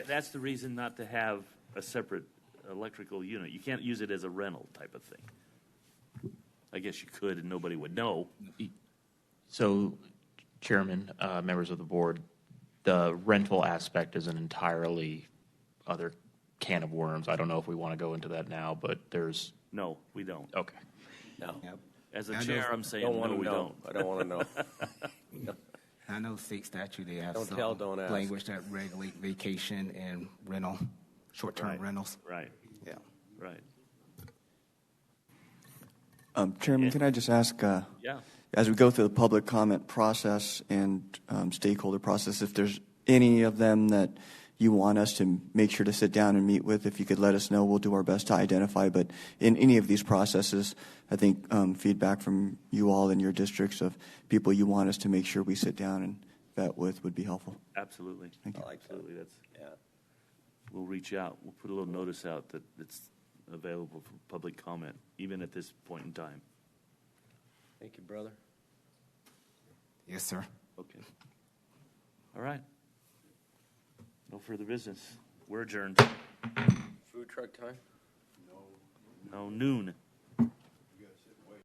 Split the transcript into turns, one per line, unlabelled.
that's the reason not to have a separate electrical unit. You can't use it as a rental type of thing. I guess you could and nobody would know.
So, Chairman, uh, members of the board, the rental aspect is an entirely other can of worms. I don't know if we want to go into that now, but there's,
No, we don't.
okay.
No.
Yep.
As a
I
chair,
don't-
I'm saying,
Don't want
no,
to
we
know.
don't.
I don't want to know.
I know state statute, they have
Don't tell, don't
some
ask.
language that regulate vacation and rental, short-term
Right.
rentals.
Right,
Yeah.
right.
Um, Chairman, can I just ask, uh,
Yeah.
as we go through the public comment process and um, stakeholder process, if there's any of them that you want us to make sure to sit down and meet with, if you could let us know, we'll do our best to identify. But in any of these processes, I think um, feedback from you all in your districts of people you want us to make sure we sit down and vet with would be helpful.
Absolutely.
I like that.
Absolutely, that's,
Yeah.
we'll reach out. We'll put a little notice out that it's available for public comment, even at this point in time.
Thank you, brother.
Yes, sir.
Okay. All right. No further business. We're adjourned.
Food truck time?
No noon.